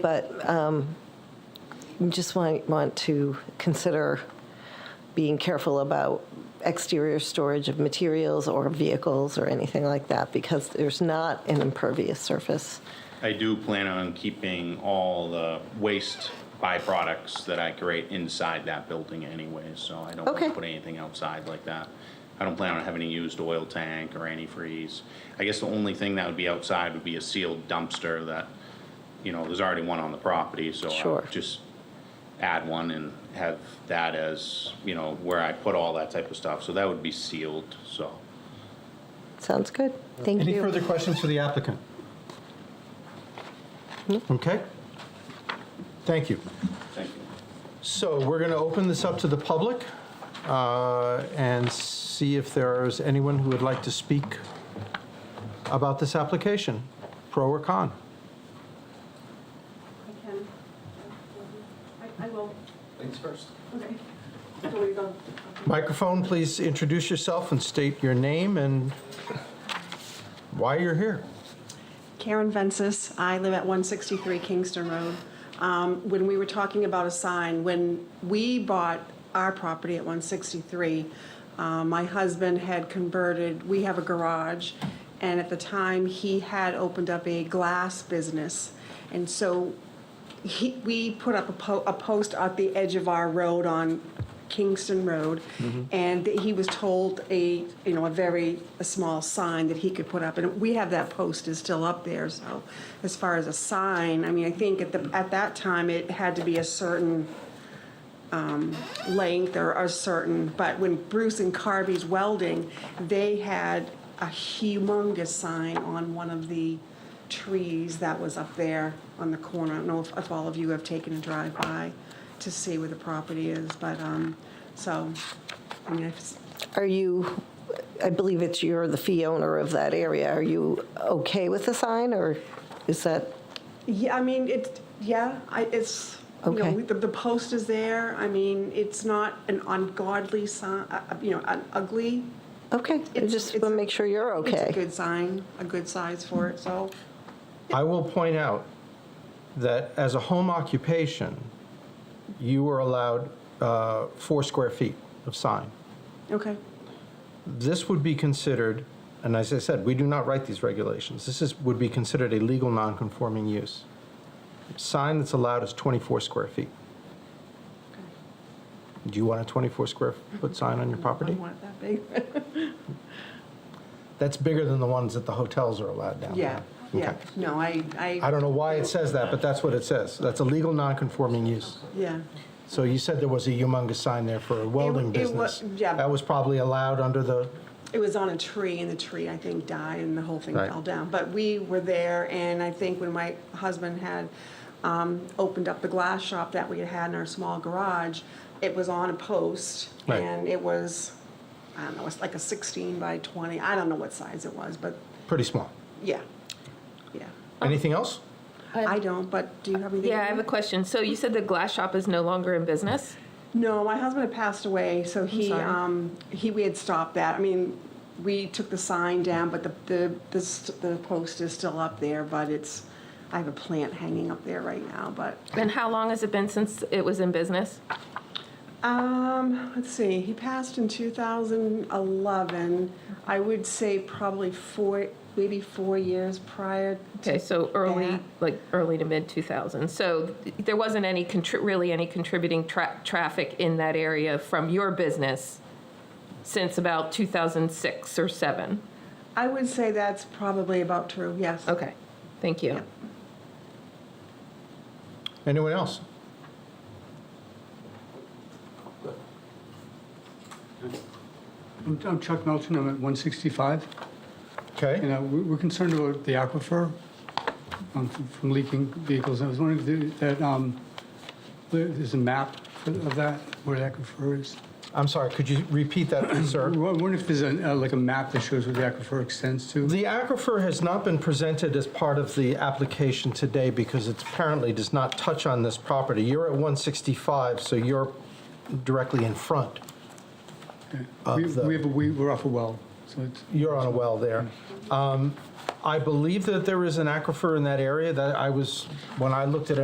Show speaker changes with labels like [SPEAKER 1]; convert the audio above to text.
[SPEAKER 1] but um, you just might want to consider being careful about exterior storage of materials or vehicles or anything like that, because there's not an impervious surface.
[SPEAKER 2] I do plan on keeping all the waste byproducts that I create inside that building anyway, so I don't
[SPEAKER 1] Okay.
[SPEAKER 2] want to put anything outside like that. I don't plan on having a used oil tank or antifreeze. I guess the only thing that would be outside would be a sealed dumpster that, you know, there's already one on the property, so I
[SPEAKER 1] Sure.
[SPEAKER 2] would just add one and have that as, you know, where I put all that type of stuff, so that would be sealed, so.
[SPEAKER 1] Sounds good. Thank
[SPEAKER 3] Any
[SPEAKER 1] you.
[SPEAKER 3] further questions for the applicant? Okay. Thank you.
[SPEAKER 2] Thank you.
[SPEAKER 3] So we're going to open this up to the public uh, and see if there is anyone who would like to speak about this application, pro or con.
[SPEAKER 4] I can. I, I will.
[SPEAKER 5] Thanks first.
[SPEAKER 4] Okay. So where you going?
[SPEAKER 3] Microphone, please introduce yourself and state your name and why you're here.
[SPEAKER 4] Karen Vensis, I live at 163 Kingston Road. Um, When we were talking about a sign, when we bought our property at 163, uh, my husband had converted, we have a garage, and at the time, he had opened up a glass business. And so he, we put up a, po- a post at the edge of our road on Kingston Road, and he was told a you know a very a small sign that he could put up, and we have that post is still up there. So, as far as a sign, I mean, I think at the at that time it had to be a certain length or are certain, but when Bruce and Carvey's welding, they had a humongous sign on one of the trees that was up there on the corner. I don't know if, if all of you have taken a drive by to see where the property is, but, um, so, I mean, it's,
[SPEAKER 1] Are you, I believe it's you're the fee owner of that area. Are you okay with the sign, or is that,
[SPEAKER 4] yeah, I mean, it, yeah, I, it's, you know,
[SPEAKER 1] Okay.
[SPEAKER 4] we- the, the post is there. I mean, it's not an ungodly sign, uh, uh, you know, an ugly
[SPEAKER 1] okay, I
[SPEAKER 4] It's-
[SPEAKER 1] just
[SPEAKER 4] it's
[SPEAKER 1] want to
[SPEAKER 4] a-
[SPEAKER 1] make sure you're
[SPEAKER 4] It's a
[SPEAKER 1] okay.
[SPEAKER 4] good sign, a good size for it, so,
[SPEAKER 3] I will point out that as a home occupation, you are allowed uh, four square feet of sign.
[SPEAKER 4] okay.
[SPEAKER 3] This would be considered, and as I said, we do not write these regulations, this is, would be considered a legal nonconforming use. Sign that's allowed is 24 square feet. Do you want a 24 square foot sign on your
[SPEAKER 4] I
[SPEAKER 3] property?
[SPEAKER 4] want it that big.
[SPEAKER 3] That's bigger than the ones that the hotels are allowed down there.
[SPEAKER 4] Yeah, yeah,
[SPEAKER 3] Okay.
[SPEAKER 4] no, I, I,
[SPEAKER 3] I don't know why it says that, but that's what it says. That's a legal nonconforming use.
[SPEAKER 4] yeah,
[SPEAKER 3] So you said there was a humongous sign there for a welding
[SPEAKER 4] it wa-
[SPEAKER 3] business.
[SPEAKER 4] yeah.
[SPEAKER 3] That was probably allowed under the,
[SPEAKER 4] it was on a tree, and the tree, I think, died, and the whole thing
[SPEAKER 3] Right.
[SPEAKER 4] fell down. But we were there, and I think when my husband had um, opened up the glass shop that we had had in our small garage, it was on a post,
[SPEAKER 3] Right.
[SPEAKER 4] and it was, I don't know, it's like a 16 by 20, I don't know what size it was, but,
[SPEAKER 3] pretty small.
[SPEAKER 4] yeah, yeah.
[SPEAKER 3] Anything else?
[SPEAKER 4] I don't, but do you have anything?
[SPEAKER 6] Yeah, I have a question. So you said the glass shop is no longer in business?
[SPEAKER 4] No, my husband had passed away, so he,
[SPEAKER 6] sorry.
[SPEAKER 4] um, he, we had stopped that. I mean, we took the sign down, but the, the, the, st- the post is still up there, but it's, I have a plant hanging up there right now, but,
[SPEAKER 6] And how long has it been since it was in business?
[SPEAKER 4] um, let's see, he passed in two thousand eleven. I would say probably four, maybe four years prior.
[SPEAKER 6] Okay, so
[SPEAKER 4] Yeah.
[SPEAKER 6] early, like early to mid 2000s. So th- there wasn't any, contri- really any contributing tra- traffic in that area from your business since about 2006 or 7?
[SPEAKER 4] I would say that's probably about true, yes.
[SPEAKER 6] Okay, thank you.
[SPEAKER 3] Anyone else?
[SPEAKER 7] I'm I'm Chuck Melton, I'm at 165. You
[SPEAKER 3] Okay,
[SPEAKER 7] know, we- we're concerned about the aquifer um, from from leaking vehicles. I was wondering if the- that, um, there- there's a map for- of that, where the aquifer is.
[SPEAKER 3] I'm sorry, could you repeat that, please,
[SPEAKER 7] I
[SPEAKER 3] sir?
[SPEAKER 7] wonder if there's a- uh, like a map that shows where the aquifer extends to?
[SPEAKER 3] The aquifer has not been presented as part of the application today because it apparently does not touch on this property. You're at 165, so you're directly in front.
[SPEAKER 7] We
[SPEAKER 3] uh, the-
[SPEAKER 7] we have, a we- we're off a well, so it's,
[SPEAKER 3] You're on a well there. Um, I believe that there is an aquifer in that area that I was, when I looked at it.